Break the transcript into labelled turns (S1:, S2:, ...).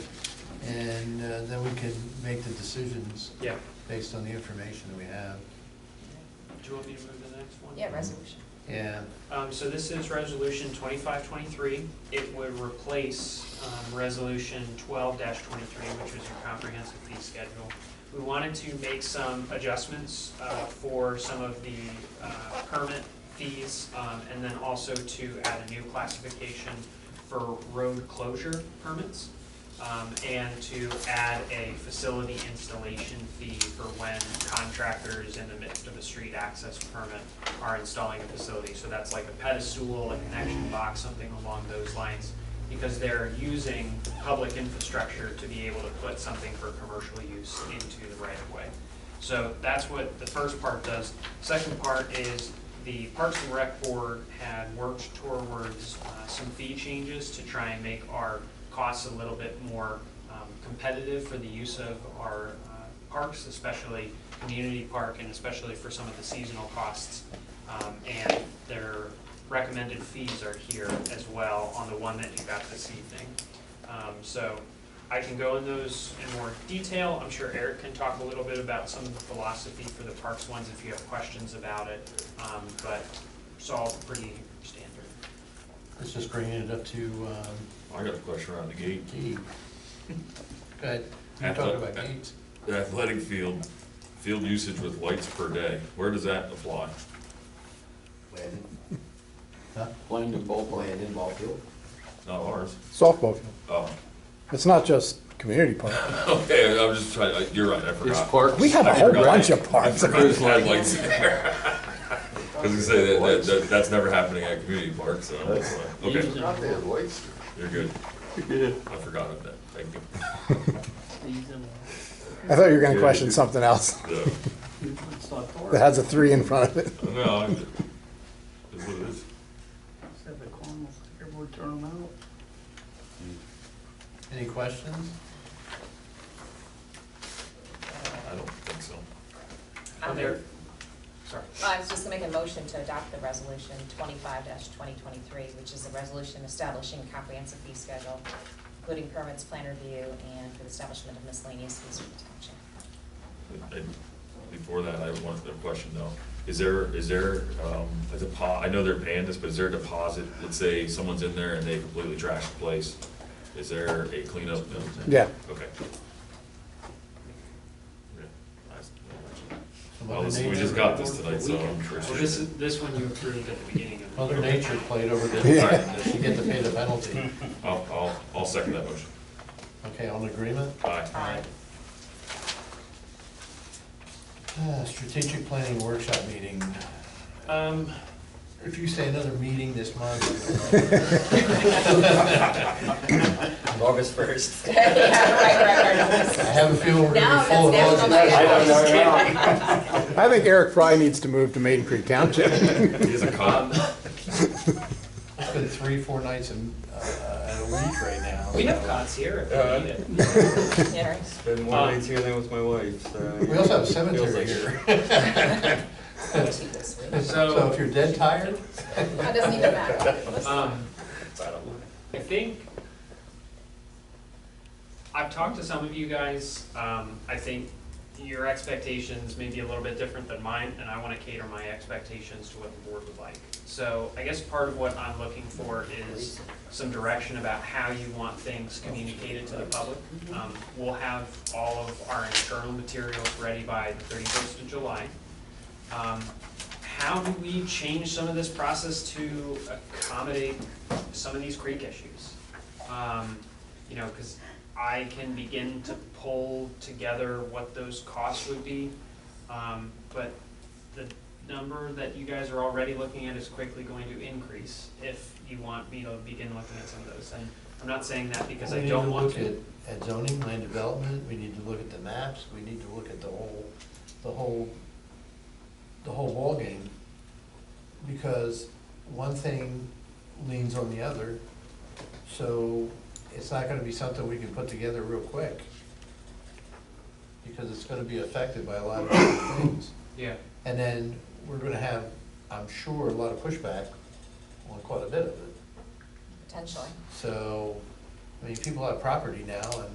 S1: uh, can make the decisions
S2: Yeah.
S1: based on the information that we have.
S2: Do you want me to move to the next one?
S3: Yeah, resolution.
S1: Yeah,
S2: Um, so this is resolution twenty-five twenty-three. It would replace, um, resolution twelve twenty-three, which was your comprehensive fee schedule. We wanted to make some adjustments, uh, for some of the, uh, permit fees, um, and then also to add a new classification for road closure permits. um, and to add a facility installation fee for when contractors in the midst of a street access permit are installing a facility. So that's like a pedestal, a connection box, something along those lines, because they're using public infrastructure to be able to put something for commercial use into the right of way. So that's what the first part does. Second part is the Parks and Rec Board had worked towards uh, some fee changes to try and make our costs a little bit more um, competitive for the use of our uh, parks, especially community park and especially for some of the seasonal costs. Um, And their recommended fees are here as well on the one that you got this evening. Um, So I can go in those in more detail. I'm sure Eric can talk a little bit about some of the philosophy for the parks ones if you have questions about it. Um, But it's all pretty standard.
S1: it's just bringing it up to, um,
S4: I got a question around the gate.
S1: G. Go ahead, you're talking about gates.
S4: The athletic field, field usage with lights per day, where does that apply?
S5: Landon,
S1: Huh?
S6: Landon ballpark.
S5: Landon ball field.
S4: Not ours.
S7: softball field.
S4: Oh,
S7: It's not just community park.
S4: okay, I'm just trying, I- you're right, I
S6: There's
S4: forgot.
S6: parks.
S7: We have a
S4: I
S7: whole
S4: forgot.
S7: bunch of
S4: I
S7: parks.
S4: forgot it had lights in there. I was gonna say, that, that- that, that's never happening at community parks, so, okay,
S5: Not there, boys.
S4: you're good. I forgot about that, thank you.
S7: I thought you were going to question something else
S4: So,
S7: that has a three in front of it.
S4: No, I'm, it's what it is.
S8: Said the corn was here, we turn them out.
S1: Any questions?
S4: I don't think so.
S2: Are Oh, there, sorry.
S3: Uh, I was just gonna make a motion to adopt the resolution twenty-five twenty twenty-three, which is a resolution establishing a comprehensive fee schedule, including permits, plan review, and for the establishment of miscellaneous fees for the township.
S4: And Before that, I have one other question though. Is there, is there, um, a depo, I know they're paying this, but is there a deposit? Let's say someone's in there and they completely trash the place. Is there a cleanup? No?
S7: Yeah.
S4: Okay. Yeah, nice. Well,
S1: Mother
S4: this- we just
S1: Nature-
S4: got this tonight, so. I'm sure-
S2: Well, this, is- this one you approved at the beginning of the
S1: Mother
S2: year.
S1: Nature played over the,
S4: All
S7: Yeah.
S4: right,
S1: you get to pay the penalty.
S4: I'll, I'll, I'll second that motion.
S1: Okay, all in agreement?
S4: Aye.
S3: Aye.
S1: Ah, Strategic planning workshop meeting.
S2: Um,
S1: If you say another meeting this month,
S5: August first.
S3: Yeah, right, right, right.
S1: I have a feeling we're
S3: Now
S1: gonna be full of
S3: that's
S1: budget.
S3: national.
S6: I don't know now.
S7: I think Eric Fry needs to move to Maiden Creek Township.
S4: He is a cop.
S1: It's been three, four nights in, uh, a week right now.
S2: we have
S1: so.
S2: cots here
S5: Uh,
S2: if we need it.
S3: Yeah, right.
S5: Been
S2: more nights
S5: here than with my wife, so.
S1: We also have a cemetery here.
S3: Two this week.
S1: So if you're dead tired,
S3: That doesn't even matter.
S2: Um, I think, I've talked to some of you guys, um, I think your expectations may be a little bit different than mine, and I wanna cater my expectations to what the board would like. So I guess part of what I'm looking for is some direction about how you want things communicated to the public. Um, we'll have all of our internal materials ready by the thirty-first of July. Um, How do we change some of this process to accommodate some of these creek issues? Um, You know, because I can begin to pull together what those costs would be, um, but the number that you guys are already looking at is quickly going to increase if you want me to begin looking at some of those. And I'm not saying that because
S1: We
S2: I
S1: need
S2: don't want
S1: look
S2: to.
S1: At at zoning, land development, we need to look at the maps, we need to look at the whole, the whole, the whole ballgame. Because one thing leans on the other, so it's not gonna be something we can put together real quick. Because it's gonna be affected by a lot of different things.
S2: Yeah.
S1: And then we're gonna have, I'm sure, a lot of pushback on quite a bit of it.
S3: Potentially.
S1: So, I mean, people have property now and